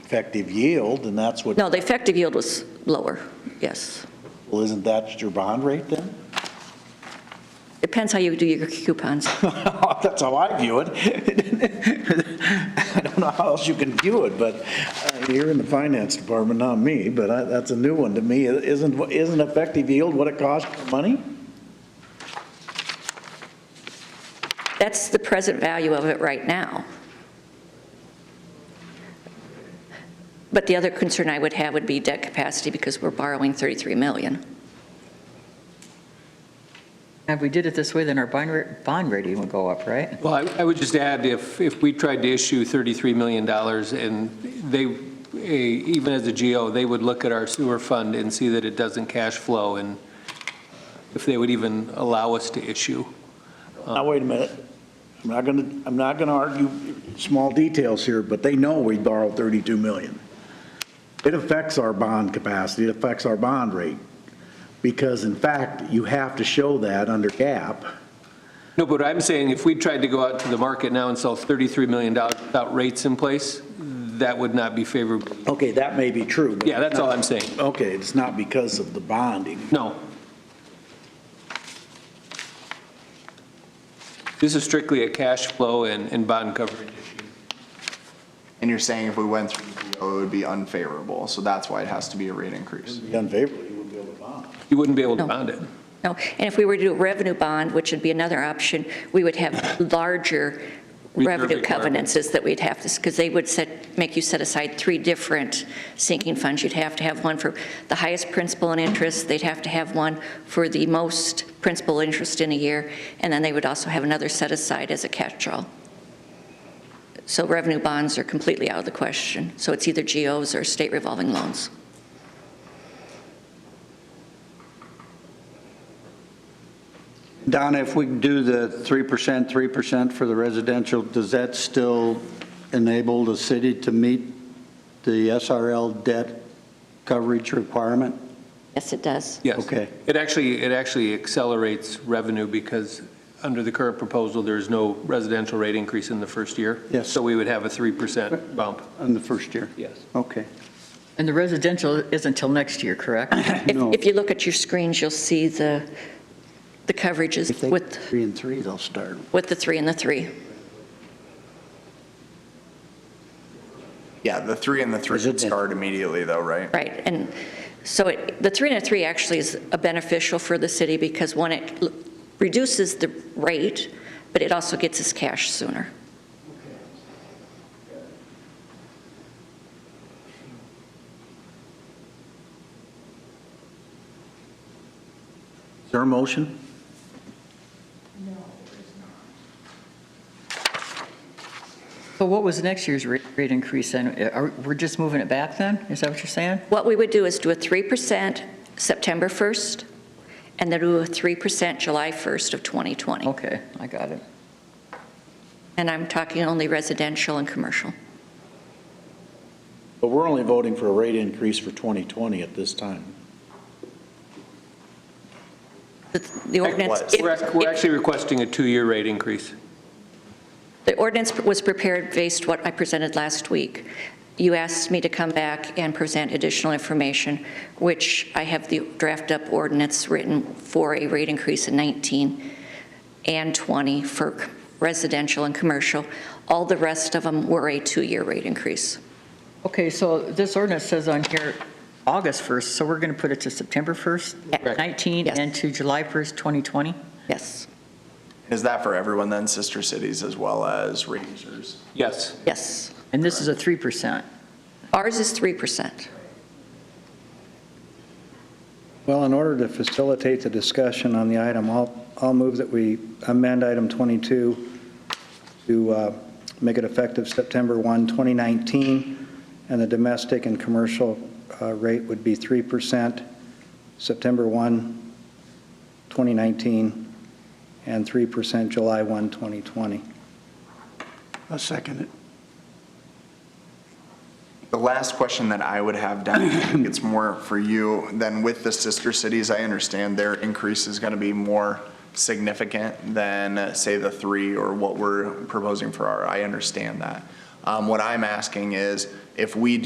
effective yield, and that's what, No, the effective yield was lower, yes. well, isn't that your bond rate then? Depends how you do your coupons. That's how I view it. I don't know how else you can view it, but uh, you're in the finance department, not me, but I- that's a new one to me. Isn't, isn't effective yield what it costs for money? That's the present value of it right now. But the other concern I would have would be debt capacity because we're borrowing 33 million. If we did it this way, then our bond rate, bond rating would go up, right? Well, I- I would just add, if, if we tried to issue $33 million and they, eh, even as a GO, they would look at our sewer fund and see that it doesn't cash flow and if they would even allow us to issue. Now, wait a minute. I'm not going to, I'm not going to argue small details here, but they know we borrowed 32 million. It affects our bond capacity, it affects our bond rate, because in fact, you have to show that under GAAP. No, but I'm saying if we tried to go out to the market now and sell $33 million without rates in place, that would not be favorable. Okay, that may be true. but- Yeah, that's all I'm saying. Okay, it's not because of the bonding. No. This is strictly a cash flow and, and bond coverage issue. And you're saying if we went through the PO, it would be unfavorable, so that's why it has to be a rate increase. Unfavorably, you wouldn't be able to bond. You wouldn't be able to No. bond it. No, and if we were to do a revenue bond, which would be another option, we would have larger revenue requirements. covenants is that we'd have this, because they would set, make you set aside three different sinking funds. You'd have to have one for the highest principal and interest, they'd have to have one for the most principal interest in a year, and then they would also have another set aside as a catch-all. So revenue bonds are completely out of the question. So it's either GOs or state revolving loans. Donna, if we do the 3%, 3% for the residential, does that still enable the city to meet the SRL debt coverage requirement? Yes, it does. Yes. Okay. It actually, it actually accelerates revenue because under the current proposal, there is no residential rate increase in the first year. Yes. So we would have a 3% bump. In the first year? Yes. Okay. And the residential is until next year, correct? If, No. if you look at your screens, you'll see the, the coverages If they, with, three and three, they'll start. with the three and the three. Yeah, the three and the three Is it- start immediately though, right? Right, and so it, the three and a three actually is a beneficial for the city because one, it l- reduces the rate, but it also gets us cash sooner. Is there a motion? So what was next year's rate, rate increase then? Uh, Are, we're just moving it back then? Is that what you're saying? What we would do is do a 3% September 1st, and then do a 3% July 1st of Oh. 2020. Okay, I got it. And I'm talking only residential and commercial. But we're only voting for a rate increase for 2020 at this time. The- The ordinance. what? if- We're act- we're if- actually requesting a two-year rate increase. The ordinance was prepared based what I presented last week. You asked me to come back and present additional information, which I have the draft-up ordinance written for a rate increase in 19 and 20 for c- residential and commercial. All the rest of them were a two-year rate increase. Okay, so this ordinance says on here, August 1st, so we're going to put it to September 1st, Correct. 19, Yes. and to July 1st, 2020? Yes, Is that for everyone then, sister cities as well as rate users? Yes. yes. And this is a 3%. Ours is 3%. Well, in order to facilitate the discussion on the item, I'll, I'll move that we amend item 22 to uh, make it effective September 1, 2019, and the domestic and commercial uh, rate would be 3% September 1, 2019, and 3% July 1, 2020. I second it. The last question that I would have, Don, I think it's more for you, than with the sister cities, I understand their increase is going to be more significant than, uh, say, the three or what we're proposing for our, I understand that. Um, What I'm asking is, if we